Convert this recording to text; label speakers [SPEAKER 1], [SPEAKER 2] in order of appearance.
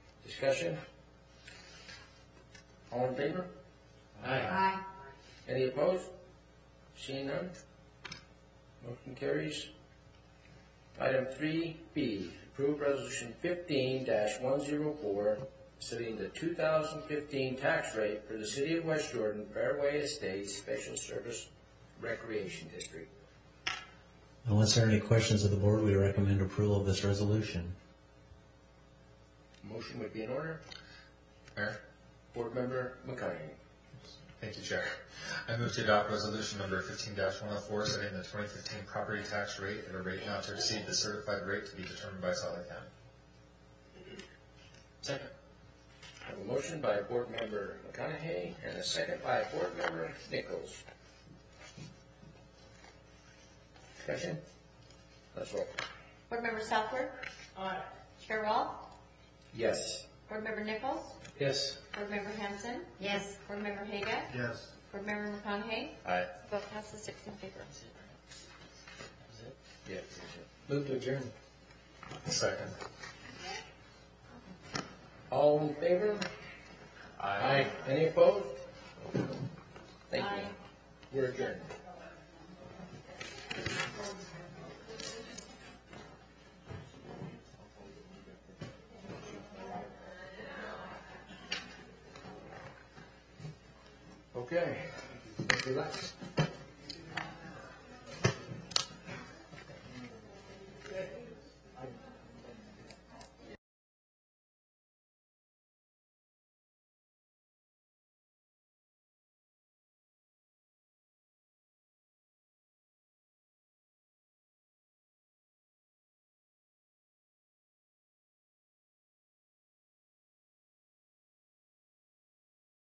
[SPEAKER 1] Discussion? All in favor?
[SPEAKER 2] Aye.
[SPEAKER 1] Any opposed? Seeing none? Motion carries. Item three B, approve resolution fifteen one zero four, setting the two thousand fifteen tax rate for the city of West Jordan Fairway Estates Special Service Recreation District.
[SPEAKER 3] Unless there are any questions of the board, we recommend approval of this resolution.
[SPEAKER 1] Motion would be in order.
[SPEAKER 4] Mayor,
[SPEAKER 1] Board member McConaughey.
[SPEAKER 4] thank you, Chair. I move to adopt resolution number fifteen one oh four, setting the twenty fifteen property tax rate at a rate not to exceed the certified rate to be determined by Salt Lake County. Second.
[SPEAKER 1] Have a motion by board member McConaughey and a second by board member Nichols. Discussion? Let's roll.
[SPEAKER 2] Board Member Southworth? Aye. Chair Wall?
[SPEAKER 1] Yes.
[SPEAKER 2] Board Member Nichols?
[SPEAKER 1] Yes.
[SPEAKER 2] Board Member Hanson? Yes. Board Member Haga?
[SPEAKER 4] Yes.
[SPEAKER 2] Board Member McConaughey?
[SPEAKER 4] Aye.
[SPEAKER 2] Vote passes six in favor.
[SPEAKER 1] Yeah.
[SPEAKER 5] Move to adjourn.
[SPEAKER 4] Second.
[SPEAKER 1] All in favor?
[SPEAKER 4] Aye.
[SPEAKER 1] Any opposed? Thank you.
[SPEAKER 2] Aye.
[SPEAKER 1] We're adjourned. Okay, relax.